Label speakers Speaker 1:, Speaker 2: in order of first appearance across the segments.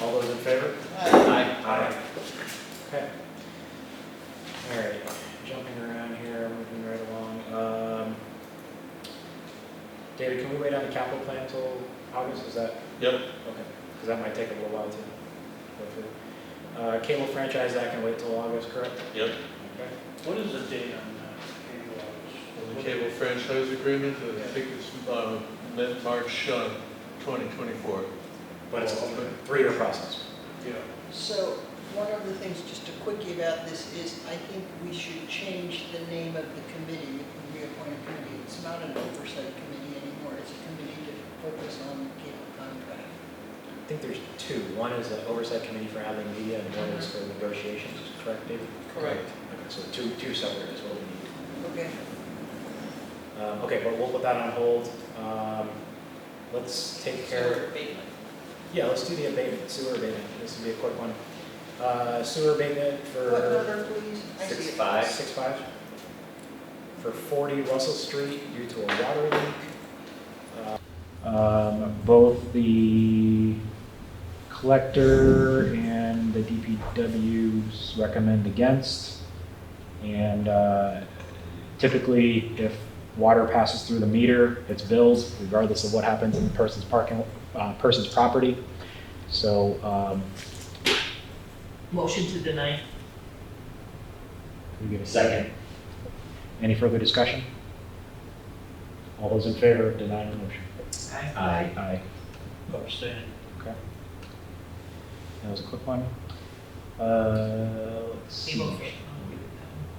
Speaker 1: All those in favor?
Speaker 2: Aye.
Speaker 1: Aye.
Speaker 3: Okay. All right, jumping around here, moving right along. Um, David, can we wait on the capital plan till August, is that?
Speaker 2: Yep.
Speaker 3: Okay, because that might take a little while to go through. Uh, Cable franchise, that can wait till August, correct?
Speaker 2: Yep.
Speaker 3: Okay.
Speaker 4: What is the date on that?
Speaker 2: The cable franchise agreement, I think it's, uh, mid March, uh, twenty twenty-four.
Speaker 3: But it's a three-year process.
Speaker 4: Yeah.
Speaker 5: So, one of the things, just a quickie about this, is I think we should change the name of the committee, if we reappoint a committee. It's not an oversight committee anymore, it's a committee to focus on cable contract.
Speaker 3: I think there's two, one is the oversight committee for Hadley Media, and one is for negotiations, correct, David?
Speaker 5: Correct.
Speaker 3: Okay, so two, two separate is what we need.
Speaker 5: Okay.
Speaker 3: Um, Okay, but we'll put that on hold. Um, Let's take care of, yeah, let's do the abatement, sewer abatement. This will be a quick one. Uh, Sewer abatement
Speaker 5: What
Speaker 3: for
Speaker 5: number, please? I see
Speaker 1: Six,
Speaker 5: it.
Speaker 1: five.
Speaker 3: six five, for 40 Russell Street due to a water leak. Um, Both the collector and the DPWs recommend against. And uh, typically, if water passes through the meter, it's billed regardless of what happens in the person's parking, uh, person's property. So um,
Speaker 6: Motion to deny.
Speaker 3: Can we give a second? Any further discussion? All those in favor of denying the motion?
Speaker 1: Aye.
Speaker 3: Aye.
Speaker 4: Abstain.
Speaker 3: That was a quick one. Uh, let's see.
Speaker 6: Table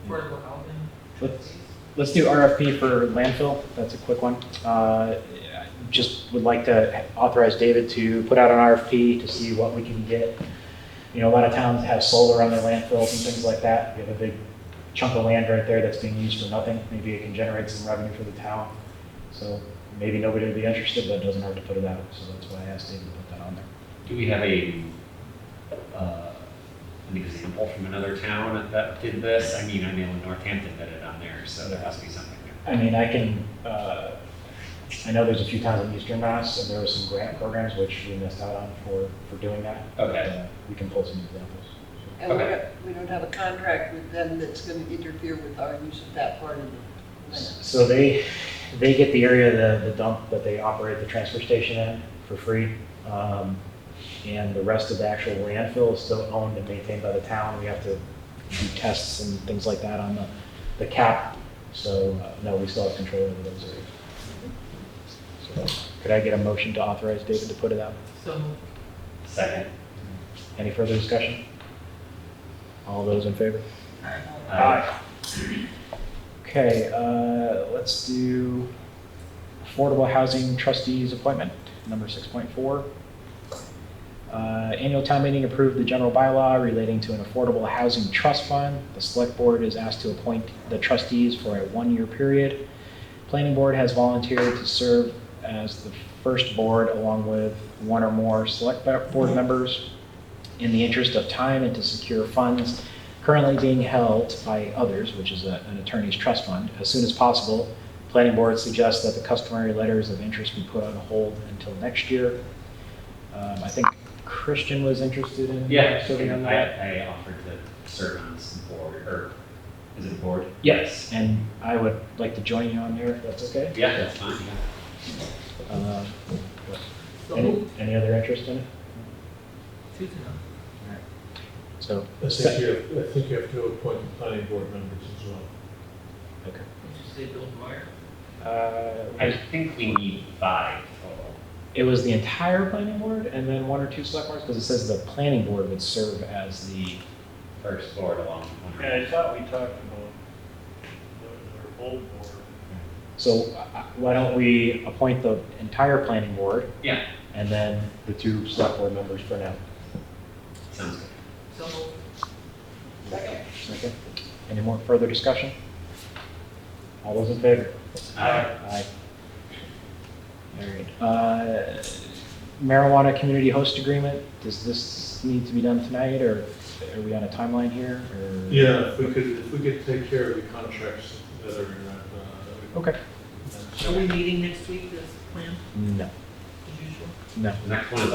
Speaker 6: for, affordable housing.
Speaker 3: Let's, let's do RFP for landfill. That's a quick one. Uh, I Just would like to authorize David to put out an RFP to see what we can get. You know, a lot of towns have solar on their landfills and things like that. We have a big chunk of land right there that's being used for nothing. Maybe it can generate some revenue for the town. So maybe nobody would be interested, but it doesn't hurt to put it out. So that's why I asked David to put that on there.
Speaker 7: Do we have a, uh, an example from another town that did this? I mean, I know Northampton did it on there, so there has to be something there.
Speaker 3: I mean, I can, uh, I know there's a few towns in Eastern Mass, and there were some grant programs which we missed out on for, for doing that.
Speaker 7: Okay.
Speaker 3: Uh, We can pull some examples.
Speaker 5: And we
Speaker 7: Okay.
Speaker 5: don't, we don't have a contract with them that's going to interfere with our use of that part of the land.
Speaker 3: So they, they get the area, of the, the dump that they operate the transfer station in for free. Um, And the rest of the actual landfill is still owned and maintained by the town. We have to do tests and things like that on the, the cap. So, uh, no, we still have control over those areas. So, Could I get a motion to authorize David to put it out?
Speaker 6: So moved.
Speaker 7: Second?
Speaker 3: Any further discussion? All those in favor?
Speaker 7: Uh,
Speaker 3: Okay, uh, let's do Affordable Housing Trustees Appointment, number 6.4. Uh, Annual town meeting approved the general bylaw relating to an affordable housing trust fund. The select board is asked to appoint the trustees for a one-year period. Planning board has volunteered to serve as the first board along with one or more select board members in the interest of time and to secure funds currently being held by others, which is a- an attorney's trust fund, as soon as possible. Planning board suggests that the customary letters of interest be put on hold until next year. Um, I think Christian was interested in
Speaker 7: Yeah,
Speaker 3: serving on
Speaker 7: and
Speaker 3: that.
Speaker 7: I, I offered to serve on this board, or is it a board?
Speaker 3: Yes, and I would like to join you on there, if that's okay.
Speaker 7: Yeah, that's fine, yeah.
Speaker 3: Um,
Speaker 6: So
Speaker 3: Any
Speaker 6: moved.
Speaker 3: any other interest in it?
Speaker 6: Two to none.
Speaker 3: So,
Speaker 2: I think you, have- I think you have to appoint the planning board members as well.
Speaker 3: okay.
Speaker 6: Did you say Bill Dwyer?
Speaker 7: I
Speaker 3: Uh,
Speaker 7: think we need five total.
Speaker 3: It was the entire planning board and then one or two select boards, because it says the planning board would serve as the
Speaker 7: First board along with one.
Speaker 4: Yeah, I thought we talked about the- our old board.
Speaker 3: So uh, why don't we appoint the entire planning board
Speaker 7: Yeah,
Speaker 3: and then the two select board members for now?
Speaker 7: sounds good.
Speaker 6: So moved.
Speaker 5: Second.
Speaker 3: Okay. Any more further discussion? All those in favor?
Speaker 7: Aye.
Speaker 3: Aye. All right. Uh, Marijuana community host agreement, does this need to be done tonight or are we on a timeline here? or-
Speaker 2: Yeah, if we could, if we could take care of the contracts that are, uh,
Speaker 3: Okay.
Speaker 6: Are we meeting next week, this plan,
Speaker 3: No,
Speaker 6: as usual?
Speaker 3: no.
Speaker 7: The Uh, next one is